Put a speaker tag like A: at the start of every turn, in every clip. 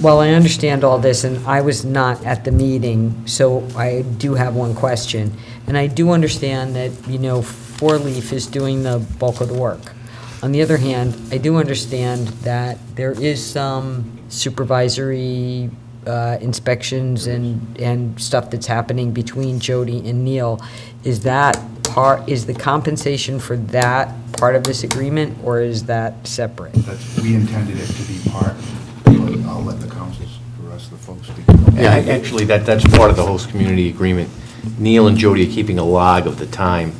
A: Well, I understand all this, and I was not at the meeting, so I do have one question. And I do understand that, you know, Four Leaf is doing the bulk of the work. On the other hand, I do understand that there is some supervisory uh, inspections and, and stuff that's happening between Jody and Neil. Is that part, is the compensation for that part of this agreement, or is that separate?
B: That's, we intended it to be part, but I'll let the councils, the rest of the folks speak.
C: Yeah, ac- actually, that, that's part of the host community agreement. Neil and Jody are keeping a log of the time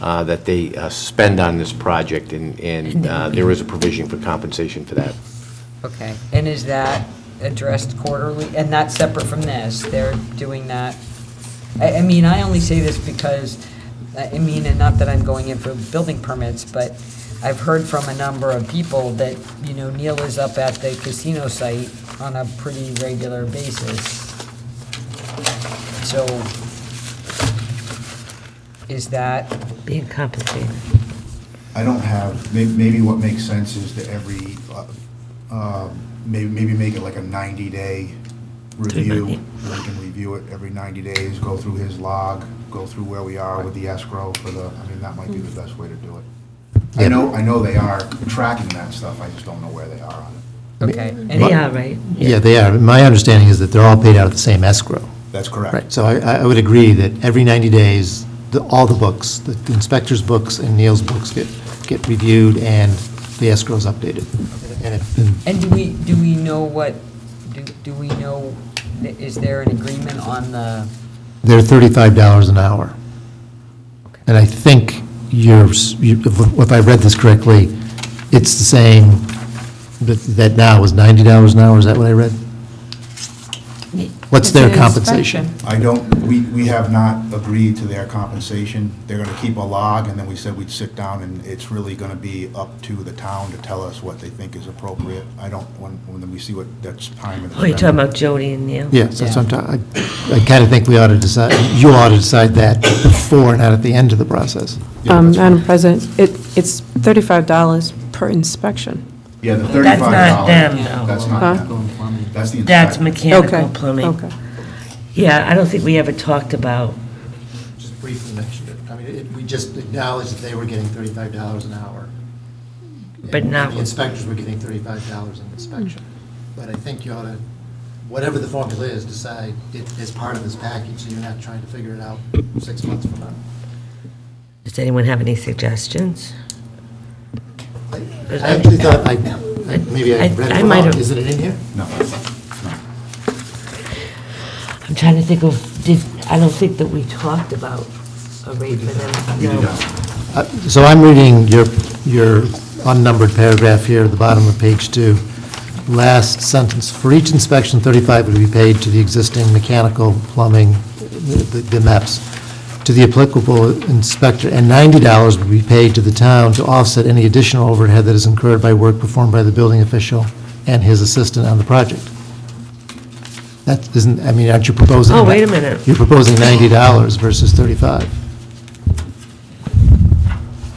C: uh, that they uh, spend on this project, and, and uh, there is a provision for compensation for that.
A: Okay, and is that addressed quarterly, and not separate from this? They're doing that, I, I mean, I only say this because, I I mean, and not that I'm going in for building permits, but I've heard from a number of people that, you know, Neil is up at the casino site on a pretty regular basis. So, is that,
D: Being compensated.
B: I don't have, may- maybe what makes sense is that every, uh, um, may- maybe make it like a 90-day review.
D: Three ninety.
B: where We can review it every 90 days, go through his log, go through where we are with the escrow for the, I mean, that might be the best way to do it. I
C: Yeah.
B: know, I know they are tracking that stuff, I just don't know where they are on it.
A: okay. and-
D: Yeah, right.
E: Yeah, they are. My understanding is that they're all paid out of the same escrow.
B: That's correct.
E: Right, so I, I I would agree that every 90 days, the, all the books, the inspector's books and Neil's books get, get reviewed and the escrow's updated. And it- and
A: And do we, do we know what, do do we know, is there an agreement on the,
E: they're $35 an hour. And I think yours, you- if if I read this correctly, it's the same, that, that now is $90 an hour, is that what I read? What's their compensation?
B: I don't, we, we have not agreed to their compensation. They're gonna keep a log, and then we said we'd sit down, and it's really gonna be up to the town to tell us what they think is appropriate. I don't, when, when we see what, that's time and.
D: Oh, you're talking about Jody and Neil?
E: Yes, that's what I'm ta- I, I kind of think we ought to decide, you ought to decide that before, not at the end of the process.
B: Yeah,
F: Um,
B: that's right.
F: Madam President, it, it's thirty-five dollars per inspection.
B: Yeah, the
D: That's
B: thirty-five dollars.
D: not them, though.
B: That's not
F: Huh?
B: them. That's the inspector.
D: That's
F: Okay.
D: mechanical plumbing.
F: Okay.
D: Yeah, I don't think we ever talked about,
G: just briefly mentioned it. I mean, it- we just acknowledged that they were getting thirty-five dollars an hour.
D: But
G: And
D: not- Mm-hmm.
G: The inspectors were getting thirty-five dollars an inspection. But I think you ought to, whatever the formula is, decide it as part of this package, so you're not trying to figure it out six months from now.
D: does anyone have any suggestions?
G: I actually thought, I, I- maybe I
D: I-
G: read
D: I
G: it
D: might
G: wrong.
D: have-
G: Is it in here?
B: No,
D: I'm trying to think of, did, I don't think that we talked about a rate for them.
B: we did
D: No.
B: not.
E: Uh, So I'm reading your, your unnumbered paragraph here at the bottom of page two. Last sentence, for each inspection, 35 would be paid to the existing mechanical, plumbing, the the MEPs, to the applicable inspector, and $90 would be paid to the town to offset any additional overhead that is incurred by work performed by the building official and his assistant on the project. That isn't, I mean, aren't you proposing?
D: Oh, wait a minute.
E: You're proposing $90 versus 35.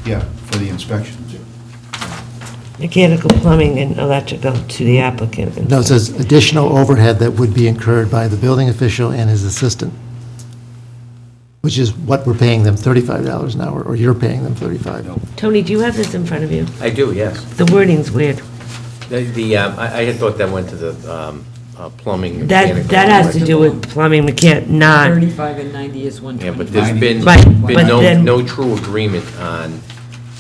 B: Yeah, for the inspections.
D: Mechanical plumbing and electrical to the applicant.
E: No, it says additional overhead that would be incurred by the building official and his assistant, which is what we're paying them $35 an hour, or you're paying them 35.
B: No.
D: Tony, do you have this in front of you?
C: I do, yes.
D: The wording's weird.
C: The- The, um, I I had thought that went to the um, uh, plumbing.
D: That,
C: mechanical-
D: that has to do with plumbing, mechan, not,
A: 35 and 90 is
C: Yeah, but
A: 125.
C: there's been,
D: Right, but
C: been no,
D: then-
C: no true agreement on,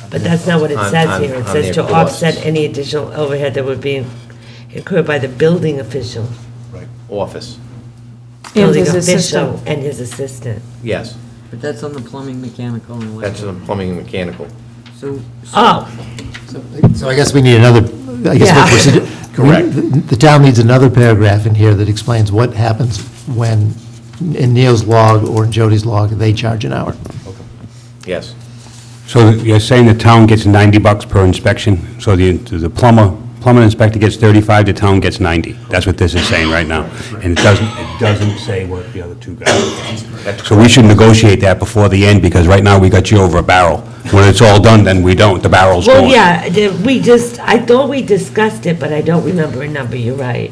D: but that's not what it
C: On-
D: says
C: on-
D: here. It
C: on
D: says
C: their
D: to
C: costs.
D: offset any additional overhead that would be incurred by the building official.
B: Right.
C: office,
F: And
D: Building
F: his
D: official
F: assistant.
D: and his assistant.
C: yes.
A: But that's on the plumbing, mechanical, and
C: That's
A: electrical.
C: the plumbing and mechanical.
A: So, so
D: Oh,
E: So I guess we need another, I guess what we're sugge-
C: Correct.
E: we- The town needs another paragraph in here that explains what happens when, in Neil's log or in Jody's log, they charge an hour.
C: Yes,
H: So you're saying the town gets 90 bucks per inspection, so the the plumber plumbing inspector gets 35, the town gets 90. That's what this is saying right now. And it doesn't, it doesn't say what the other two guys get. So we should negotiate that before the end, because right now we got you over a barrel. When it's all done, then we don't, the barrel's gone.
D: Well, yeah, the- we just, I thought we discussed it, but I don't remember a number, you're right.